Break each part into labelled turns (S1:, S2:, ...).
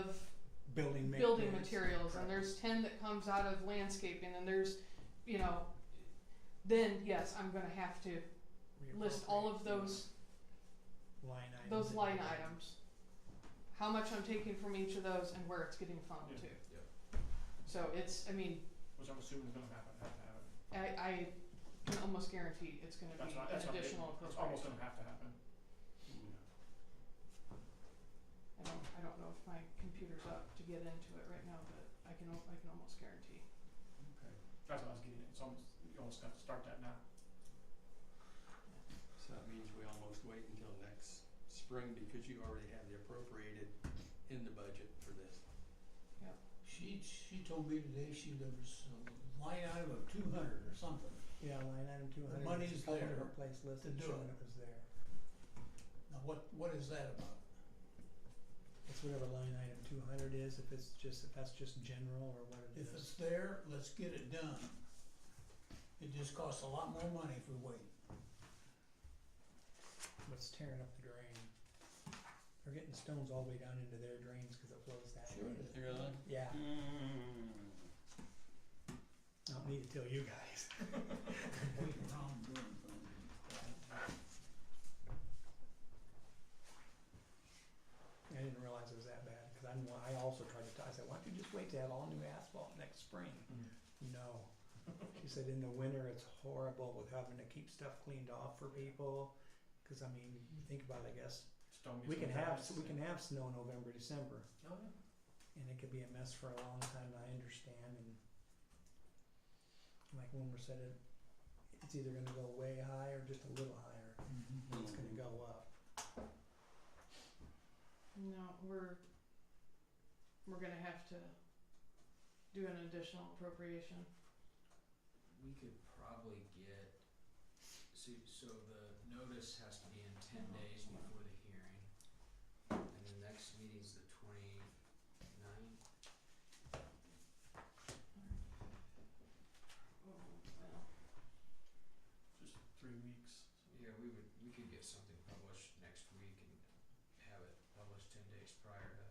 S1: of
S2: building maintenance.
S1: building materials and
S2: correct.
S1: there's ten that comes out of landscaping and there's, you know, then yes, I'm gonna have to list all of
S2: Reappropriate
S1: those,
S2: Line items.
S1: those
S2: and
S1: line
S2: everything.
S1: items. How much I'm taking from each of those and where it's getting funneled to.
S3: Yeah.
S1: So it's, I mean,
S4: which I'm assuming is gonna happen, have to happen.
S1: I, I can almost guarantee it's gonna be
S4: That's not, that's
S1: an
S4: not, big.
S1: additional
S4: it's
S1: appropriation.
S4: almost gonna have to happen.
S1: I don't, I don't know if my computer's up to get into it right now, but I can, al- I can almost guarantee.
S4: Okay. That's what I was getting at, it's almost, you almost have to start that now.
S3: So that means we almost wait until next spring because you already have the appropriated in the budget for this.
S5: She, she told me today she, there was a line item of two hundred or something.
S2: Yeah, line item two hundred.
S5: money's
S2: Couple
S5: there
S2: different place listed
S5: do
S2: showing it
S5: it.
S2: was there.
S5: Now, what, what is that about?
S2: It's whatever line item two hundred is, if it's just, if that's just general or what it
S5: If
S2: is.
S5: it's there, let's get it done. It just costs a lot more money if we wait.
S2: What's tearing up the drain. They're getting stones all the way down into their drains because it flows that way.
S5: it is.
S3: Really?
S2: Yeah,
S6: Hmm.
S2: I don't need to tell you guys.
S5: Wait around doing things.
S2: I didn't realize it was that bad because I'm, I also tried to, t- I said, why don't you just wait to have all new asphalt next spring? No. She said in the winter, it's horrible with having to keep stuff cleaned off for people. Cause I mean, you think about it, I guess,
S4: Stone gets
S2: we can
S4: moved out.
S2: have, s- we can have snow November, December.
S4: Oh, yeah.
S2: and it could be a mess for a long time. I understand, and like Wilmer said, it it's either going to go way high or just a little higher. It's going
S5: Hmm.
S2: to go up.
S1: No, we're, we're gonna have to do an additional appropriation.
S6: We could probably get, so, so the notice has to be in ten
S4: Uh-huh.
S6: days before the hearing. And the next meeting's the twenty-ninth.
S1: Oh, well,
S4: Just three weeks.
S6: Yeah, we would, we could get something published next week and have it published ten days prior to.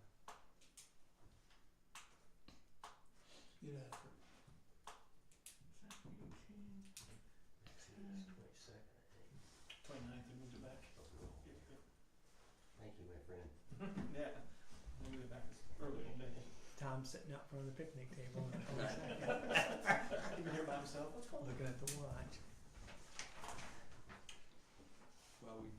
S5: Get after it.
S1: is that eighteen?
S6: meeting's
S1: Um,
S4: Twenty ninth, they moved it back. Yeah,
S3: Thank you, my friend.
S4: Yeah, Yeah. they moved it back this early in the day.
S2: Tom's sitting out front of the picnic table on the 22nd,
S4: Even here by himself, let's go.
S2: looking at the watch.
S3: Well, we.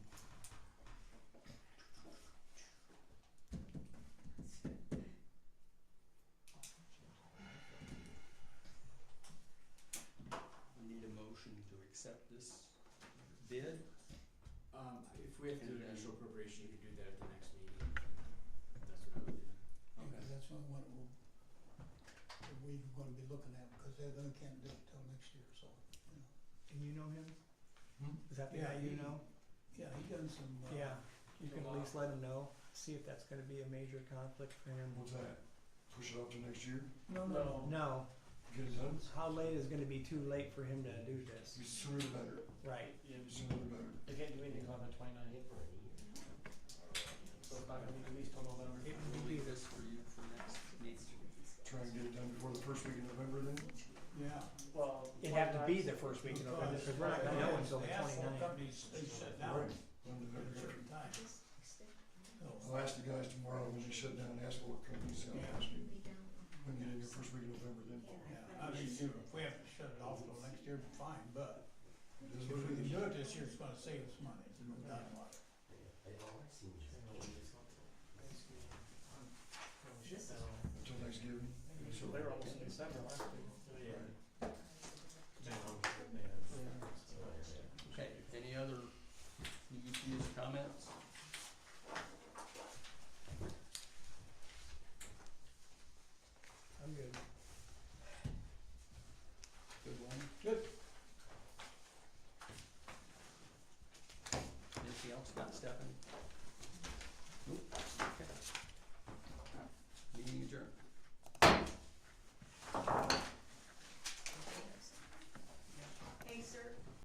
S3: We need a motion to accept this bid.
S6: Um, if we have to do an
S3: And-
S6: initial appropriation, you could do that at the next meeting. That's what I would do.
S5: Yeah, 'cause that's the only one we'll, that we're gonna be looking at, because they're gonna can't do it till next year, so, you know.
S2: And you know him?
S5: Hmm?
S2: Is that the
S5: Yeah,
S2: guy you
S5: he-
S2: know?
S5: Yeah, he done some, uh.
S2: Yeah. You
S4: He's
S2: can at
S4: alive.
S2: least let him know. See if that's going to be a major conflict for him.
S7: What's that? Push it up to next year?
S5: No,
S4: No.
S5: no,
S2: No.
S7: Get it done?
S2: How late is going to be too late for him to do this?
S7: The sooner the better.
S2: Right.
S4: Yeah,
S7: The
S4: just-
S7: sooner the better.
S4: they can't do anything on the twenty ninth. So it's not gonna be released till November.
S2: It
S3: We'll
S2: will be
S3: leave this for you for next meeting.
S7: Try and get it done before the first week in November then?
S5: yeah.
S4: Well.
S2: It'd have to be
S4: 29th.
S2: the first week in November,
S5: Because
S2: because we're not gonna know until the
S5: asphalt
S2: 29th.
S5: companies, they shut down
S7: Right. When
S5: at a
S7: the-
S5: certain time. So,
S7: I'll ask the guys tomorrow when they shut down asphalt companies, I'll ask them. When you get in your first week in November then?
S5: yeah, I mean, if we have to shut it off till next year, fine, but
S7: It
S5: if
S7: is
S5: we
S7: what it
S5: can
S7: is.
S5: do it this year, it's gonna save us money, no doubt about it.
S7: Until Thanksgiving.
S4: So they were almost in December last week.
S7: Right.
S3: Okay, any other UPS comments?
S2: I'm good.
S3: Good one.
S4: Good.
S3: Anything else about Stephanie? Nope. Okay. Meeting adjourned.